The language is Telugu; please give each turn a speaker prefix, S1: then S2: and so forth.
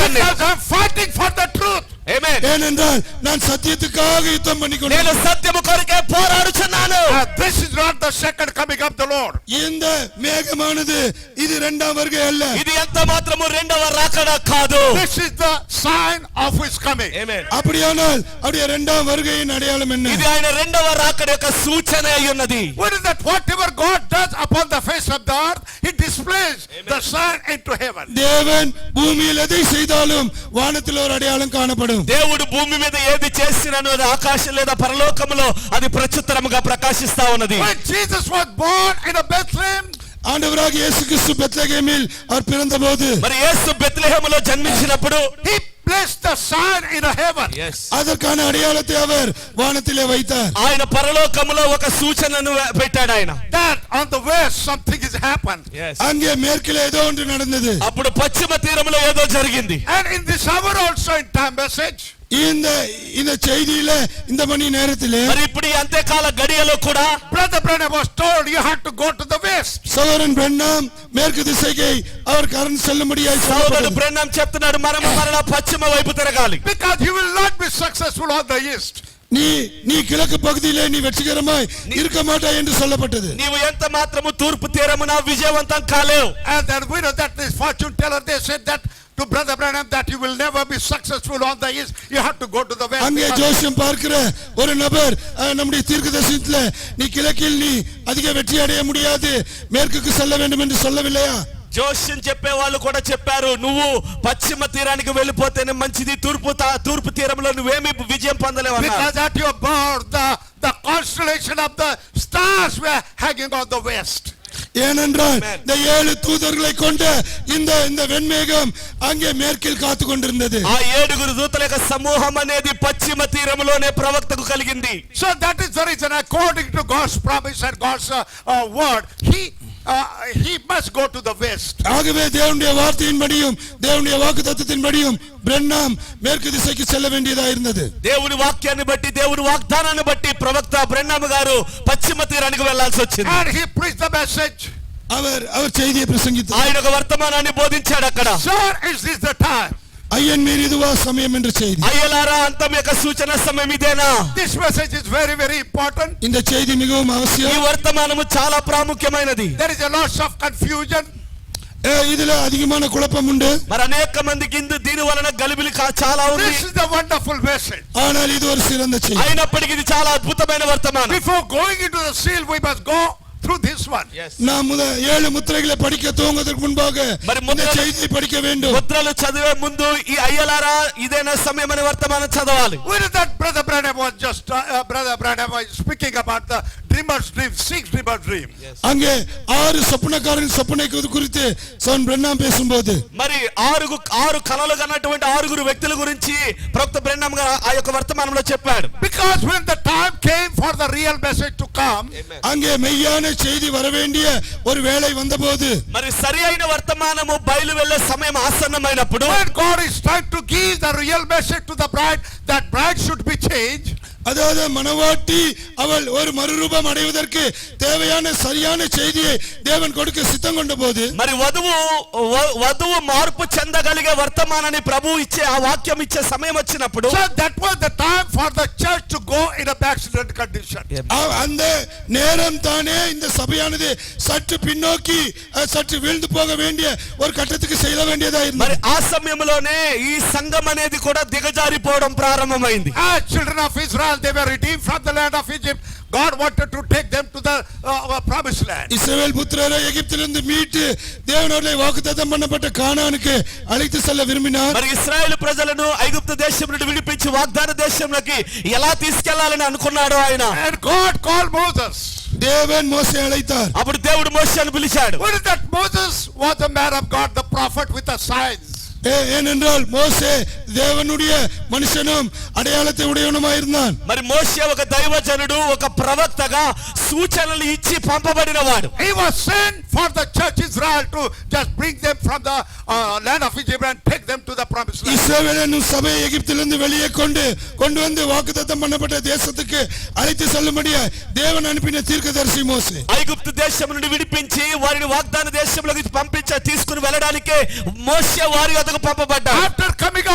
S1: பண்ணு
S2: because I'm fighting for the truth.
S1: Amen.
S3: ஏனென்றால் நான் சத்தியத்துக்காக யுத்தம் பண்ணிக்கொண்டேன்
S1: నేను సత్యము కొరకే పోరాడుచున్నాను
S2: Uh, this is not the second coming of the Lord.
S3: இந்த மேகமானது இது இரண்டாம் வருகை அல்ல
S1: ఇది ఎంత మాత్రము రెండవ రాకడ కాదు
S2: This is the sign of his coming. Uh,
S1: Amen.
S3: அப்படியானால் அவருடைய இரண்டாம் வருகையின் அடையாளம் என்ன
S1: ఇది ఆయన రెండవ రాకడ యొక్క సూచన అయి ఉన్నది
S2: What is that? Whatever God does upon the face of the earth, he displays the sign into heaven.
S3: தேவன் பூமியில் எதை செய்தாலும் வானத்தில் ஒரு அடையாளம் காணப்படும்
S1: దేవుడు భూమి మీద ఏది చేసినను అది ఆకాశం లేదా పరలోకములో అది ప్రత్యుత్తరముగా ప్రకాశిస్తా ఉన్నది
S2: When Jesus was born in a Bethlehem,
S3: ஆண்டவராக இயேசு கிறிஸ்து பெத்லகேமில் அவர் பிறந்தபோது
S1: మరి యేసు బెత్లెహేములో జన్మించినప్పుడు
S2: he placed the sign in a heaven.
S3: அதற்கான அடையாளத்தை அவர் வானத்திலே வைத்தார்
S1: ఆయన పరలోకములో ఒక సూచనను పెట్టాడు ఆయన
S2: That on the west something has happened.
S3: அங்கே மேற்கிலே ஏதோ ஒன்று நடந்தது
S1: అప్పుడు పశ్చిమ తీరములో ఏదో జరిగింది
S2: And in this hour also in time message,
S3: இந்த இந்த செய்தியில இந்த மணி நேரத்திலே
S1: మరి ఇప్పుడు ఈ అంత్యకాల గడియలో కూడా
S2: Brother Branham was told you have to go to the west.
S3: சகோதரன் பெண்ணாம் மேற்கு திசைக்கு அவர் கரண் செல்லும்படியாய்
S1: సోదరుడు
S3: சொல்லப்பட்டது
S1: బ్రెన్నం చెప్తున్నాడు మనము మరలా పశ్చిమ వైపు తిరగాలి
S2: Because you will not be successful on the east.
S3: நீ நீ கிழக்கு பகுதியிலே நீ வெற்றிகரமாய் இருக்க மாட்டாய் என்று சொல்லப்பட்டது
S1: నీవు ఎంత మాత్రము తూర్పు తీరమున విజయవంతం కాలేవు
S2: And then we know that this fortune teller, they said that to Brother Branham that you will never be successful on the east. You have to go to the west.
S3: அங்கே
S2: because-
S3: ஜோசியம் பார்க்கிற ஒரு நபர் அஹ், நம்முடைய தீர்க்கதரிசனத்துல நீ கிழக்கில் நீ அதிக வெற்றி அடைய முடியாது மேற்குக்கு செல்ல வேண்டும் என்று சொல்லவில்லையா
S1: జోష్యం చెప్పే వాళ్ళు కూడా చెప్పారు నువ్వు పశ్చిమ తీరానికి వెళ్ళిపోతేనే మంచిది తూర్పు తా- తూర్పు తీరంలో నువ్వేమి విజయం పొందలేవు అన్నారు.
S2: Because at your birth, the, the constellation of the stars were hanging on the west.
S3: ஏனென்றால்
S1: Amen.
S3: இந்த ஏழு தூதர்களை கொண்ட இந்த இந்த வெண்மேகம் அங்கே மேற்கில் காத்து கொண்டிருந்தது
S1: ఆ ఏడుగురు దూతల యొక్క సమూహం అనేది పశ్చిమ తీరములోనే ప్రవక్తకు కలిగింది
S2: So that is the reason, according to God's promise and God's uh, uh, word, he, uh, he must go to the west.
S3: ஆகவே தேவனுடைய வார்த்தையின்படியும் தேவனுடைய வாக்கு தத்துவத்தின்படியும் பிரண்ணாம் மேற்கு திசைக்கு செல்ல வேண்டியதா இருந்தது
S1: దేవుని వాక్యాన్ని బట్టి దేవుని వాగ్దానాన్ని బట్టి ప్రవక్త బ్రెన్నాము గారు పశ్చిమ తీరానికి వెళ్లాల్సి వచ్చింది
S2: And he preached the message,
S3: அவர் அவர் செய்தியை பிரசங்கித்தார்
S1: ఆయన ఒక వర్తమానాన్ని బోధించాడు అక్కడ
S2: Sir, is this the time?
S3: ஐயன் மீறி இதுவா சமயம் என்ற செய்தி
S1: అయ్యలారా అంతం యొక్క సూచన సమయం ఇదేనా
S2: This message is very, very important.
S3: இந்த செய்தி மிகவும்
S1: ఈ
S3: அவசியம்
S1: వర్తమానము చాలా ప్రాముఖ్యమైనది
S2: There is a lot of confusion.
S3: ஏ, இதுல அதிகமான குழப்பம் உண்டு
S1: మరి అనేక మందికి ఇందు దీని వలన గలిబిలి కా- చాలా ఉంది
S2: This is the wonderful message.
S3: ஆனால் இது ஒரு సిరంద செய்தி
S1: అయినప్పటికీ ఇది చాలా అద్భుతమైన వర్తమానం
S2: Before going into the seal, we must go through this one.
S3: நாம் முத ஏழு முத்திரைகளை படிக்க துவங்குவதற்கு முன்பாக
S1: మరి
S3: இந்த
S1: முத்திரை-
S3: செய்தியை படிக்க வேண்டும்
S1: ముద్రలు చదివే ముందు ఈ అయ్యలారా ఇదేనా సమయం అనే వర్తమానం చదవాలి
S2: Where is that brother Branham was just, uh, uh, brother Branham was speaking about the dreamer's dream, six dreamer's dream.
S3: அங்கே ஆறு சொப்பனக்காரன் சொப்பனை குறி- குறித்து சவன் பிரண்ணாம் பேசும்போது
S1: మరి ఆరుగు ఆరు కళలు కన్నటువంటి ఆరుగురు వ్యక్తుల గురించి ప్రవక్త బ్రెన్నాం గారు ఆ యొక్క వర్తమానంలో చెప్పాడు
S2: Because when the time came for the real message to come,
S3: அங்கே மெய்யான செய்தி வரவேண்டிய ஒரு வேளை வந்தபோது
S1: మరి సరి అయిన వర్తమానము బయలు వెళ్ళే సమయం ఆసన్నమైనప్పుడు
S2: when God is trying to give the real message to the bride, that bride should be changed.
S3: அதாவது மனவாட்டி அவள் ஒரு மறுரூபம் அடைவதற்கு தேவையான சரியான செய்தியை தேவன் கொடுக்க சித்தம் கொண்ட போது
S1: మరి వధువు వ- వధువు మార్పు చెందగలిగే వర్తమానాన్ని ప్రభు ఇచ్చే ఆ వాక్యం ఇచ్చే సమయం వచ్చినప్పుడు
S2: So that was the time for the church to go in a backslidden condition.
S1: Yeah.
S3: அவ்- அந்த நேரம் தானே இந்த சபையானது சற்று பின்னோக்கி அஹ், சற்று வீழ்ந்து போக வேண்டிய ஒரு கட்டத்துக்கு செல்ல வேண்டியதா
S1: మరి
S3: இருந்தது
S1: ఆ సమయంలోనే ఈ సంఘం అనేది కూడా దిగజారిపోవడం ప్రారంభమైంది
S2: As Ah, children of Israel, they were redeemed from the land of Egypt. God wanted to take them to the uh, promised land.
S3: இஸ்ரவேல் புத்திரரை எகிப்திலிருந்து மீட்டு தேவனுடைய வாக்குத்தத்தம் பண்ணப்பட்ட கானானுக்கு அழைத்து செல்ல விரும்பினார்
S1: మరి ఇస్రాయేల్ ప్రజలను ఐగుప్తు దేశం నుండి విడిపించి వాగ్దాన దేశంలోకి ఎలా తీసుకెళ్లాలని అనుకున్నాడు ఆయన
S2: And God called Moses.
S3: தேவன் மோசே அழைத்தார்
S1: అప్పుడు దేవుడు మోషాను పిలిచాడు
S2: What is that Moses was the man of God, the prophet with the signs.
S3: ஏ- ஏனென்றால் மோசே தேவனுடைய மனுஷனும் அடையாளத்தை உடையவனுமாயிருந்தான்
S1: మరి మోషే ఒక దైవజనుడు ఒక ప్రవక్తగా సూచనలు ఇచ్చి పంపబడినవాడు
S2: He was sent for the church Israel to just bring them from the uh, land of Egypt and take them to the promised land.
S3: இஸ்ரவேல் என்னும் சபையை எகிப்திலிருந்து வெளியே கொண்டு கொண்டு வந்து வாக்குத்தத்தம் பண்ணப்பட்ட தேசத்துக்கு அழைத்து செல்லும்படியா தேவன் அனுப்பின தீர்க்கதரிசி மோசே
S1: ఐగుప్తు దేశం దేశం నుండి విడిపించి వారిని వాగ్దాన దేశంలోకి పంపించ తీసుకుని వెళ్ళడానికే మోసే వారి వద్దకు పంపబడ్డాడు
S2: After coming